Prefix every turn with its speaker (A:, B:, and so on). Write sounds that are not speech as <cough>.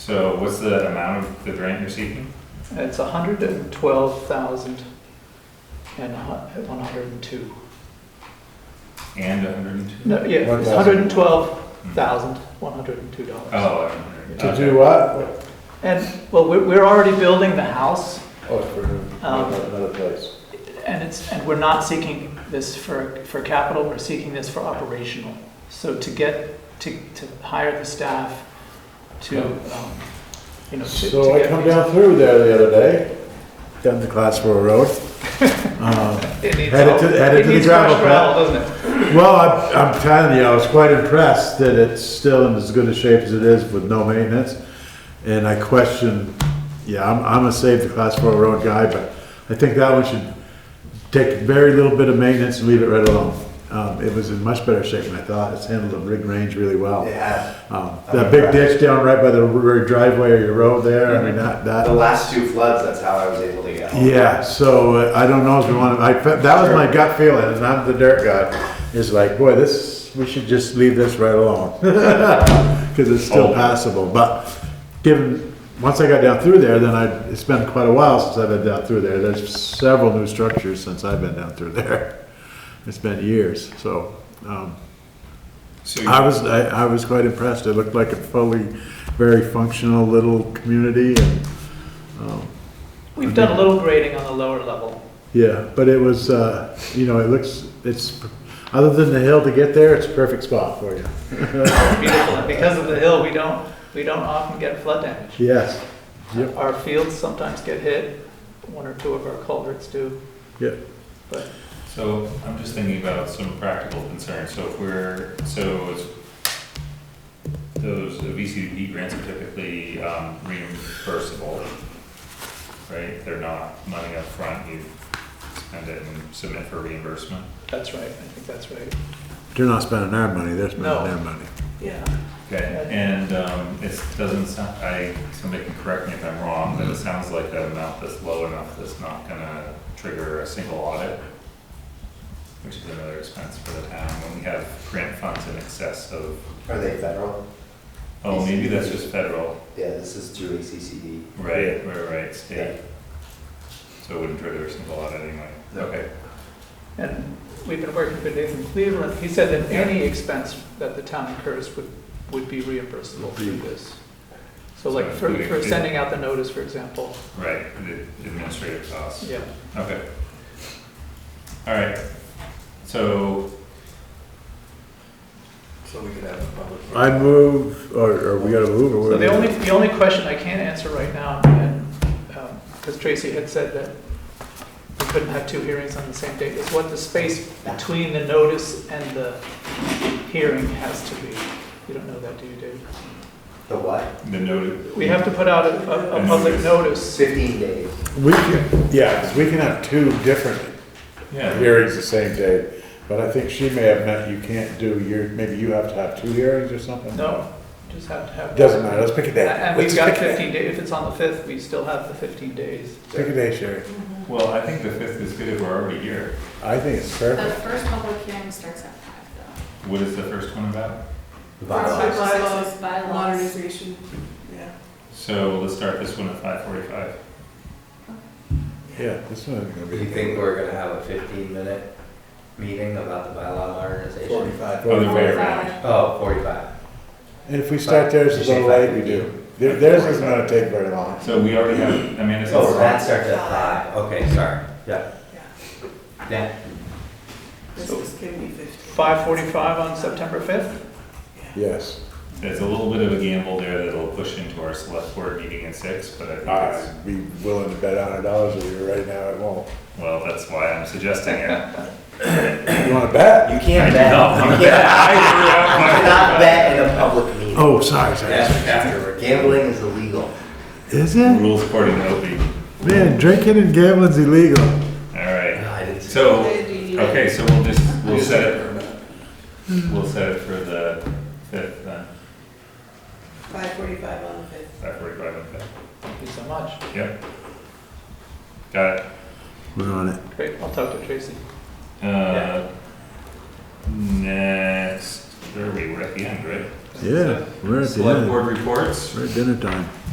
A: So what's the amount of the grant you're seeking?
B: It's a hundred and twelve thousand and one hundred and two.
A: And hundred and two?
B: No, yeah, it's hundred and twelve thousand, one hundred and two dollars.
A: Oh, 100.
C: To
A: Okay.
C: do what?
B: And, well, we're, we're already building the house
C: Oh, for
B: Um,
C: another place.
B: and it's, and we're not seeking this for, for capital, we're seeking this for operational. So to get, to, to hire the staff to, um, you know, to. to
C: So I
B: get
C: come
B: these-
C: down through there the other day, down the Glassboro Road. Uh,
B: It needs,
C: headed to-
B: help.
C: headed
B: it
C: to the
B: needs
C: gravel
B: fresh
C: pit.
B: gravel, doesn't it?
C: Well, I'm, I'm telling you, I was quite impressed that it's still in as good a shape as it is with no maintenance. And I question, yeah, I'm, I'm a save the Glassboro Road guy, but I think that one should take very little bit of maintenance and leave it right alone. Um, it was in much better shape than I thought. It's handled the rig range really well.
D: Yeah,
C: Um, that big ditch down right by the r- driveway or your road there, I mean, that,
D: the
C: that,
D: last two floods, that's how I was able to get home.
C: yeah, so uh, I don't know if we want to, I, fe- that was my gut feeling, and I'm the dirt guy, is like, boy, this, we should just leave this right alone. <laughs> Cause it's
A: Oh.
C: still passable, but given, once I got down through there, then I, it's been quite a while since I've been down through there, there's several new structures since I've been down through there. It's been years, so, um,
A: So
C: I
A: you-
C: was, I, I was quite impressed. It looked like a fully, very functional little community and, um,
B: We've done a little grading on the lower level.
C: yeah, but it was, uh, you know, it looks, it's, other than the hill to get there, it's a perfect spot for you.
B: Beautiful, and because of the hill, we don't, we don't often get flood damage.
C: Yes, Yep.
B: Our fields sometimes get hit, one or two of our culverts do.
C: Yep.
B: But
A: So I'm just thinking about some practical concerns. So if we're, so it's, those VCDP grants are typically um, reimbursable, right? They're not money up front. you spend it and submit for reimbursement.
B: that's right, I think that's right.
C: they're not spending our money, they're
B: No.
C: spending their money.
B: Yeah.
A: Okay, and um, it doesn't sound, I, somebody can correct me if I'm wrong, but it
D: Mm-hmm.
A: sounds like an amount that's low enough that's not gonna trigger a single audit, which is another expense for the town, when we have grant funds in excess of,
D: Are they federal?
A: oh, maybe that's just federal,
D: Yeah, this is through ACCD.
A: right, right, right, state. So it wouldn't trigger a single audit anyway,
D: No.
A: okay.
B: And we've been working for Nathan Cleveland, he said that any expense that the town incurs would, would be reimbursable through this. So like for, for sending out the notice, for example,
A: Right, the administrative costs.
B: yeah.
A: Okay. All right, so,
D: So we could have a public.
C: I move, or, or we gotta move, or.
B: So the
C: what?
B: only, the only question I can answer right now, and, because Tracy had said that we couldn't have two hearings on the same date, is what the space between the notice and the hearing has to be. You don't know that, do you, Dave?
D: The what?
A: the note.
B: We have to put out a, a, a public notice.
D: Fifteen days.
C: We can, yeah, 'cause we can have two different
A: Yeah.
C: hearings the same day, but I think she may have meant you can't do your, maybe you have to have two hearings or something?
B: No, just have to have.
C: Doesn't matter, let's pick a day.
B: And we've
C: Let's
B: got
C: pick a day.
B: fifteen days, if it's on the fifth, we still have the fifteen days.
C: Pick a day, Sherry.
A: Well, I think the fifth is good if we're already here.
C: I think it's
E: The
C: perfect.
E: first public hearing starts at five though.
A: What is the first one about?
D: Bylaws.
E: Bylaws. Bylaws.
F: Modernization, yeah.
A: So let's start this one at five forty-five.
C: Yeah, this one's gonna
D: Do you
C: be
D: think we're gonna have a fifteen minute meeting about the bylaw modernization?
C: forty-five.
A: Other way
E: Forty-five.
A: around.
D: Oh, forty-five.
C: And if we start theirs a little late, we do. Their- Theirs isn't gonna take very long.
A: So we already have, Amanda says.
D: Oh, that starts at five. Okay, sorry. Yeah. Yeah.
F: This is gonna be fifteen.
B: Five forty-five on September fifth?
C: Yes.
A: There's a little bit of a gamble there that'll push into our select board meeting at six, but I think
C: I'd be willing to bet a hundred dollars with you right now, it won't.
A: it's, well, that's why I'm suggesting it.
C: You wanna bet?
D: You
A: I
D: can't
A: do
D: bet.
A: not wanna
D: <laughs> You
A: bet.
D: can't-
A: I threw out
D: you
A: my-
D: <laughs> cannot bet in a public meeting.
C: Oh, sorry,
D: That's afterward. Gambling is illegal.
C: Is it?
A: Rules according to Opie.
C: Man, drinking and gambling's illegal.
A: All right.
D: I didn't see-
A: So,
F: Do you-
A: okay, so we'll just, we'll set it, we'll set it for the fifth, then,
F: Five forty-five on the fifth.
A: five forty-five on the fifth.
B: Thank you so much.
A: Yep. Got it.
C: We're on it.
B: Great, I'll talk to Tracy.
A: Uh, Next, where are we? We're at the end, right?
C: Yeah, we're at the
B: Select
C: end.
B: board reports.
C: We're at dinner time.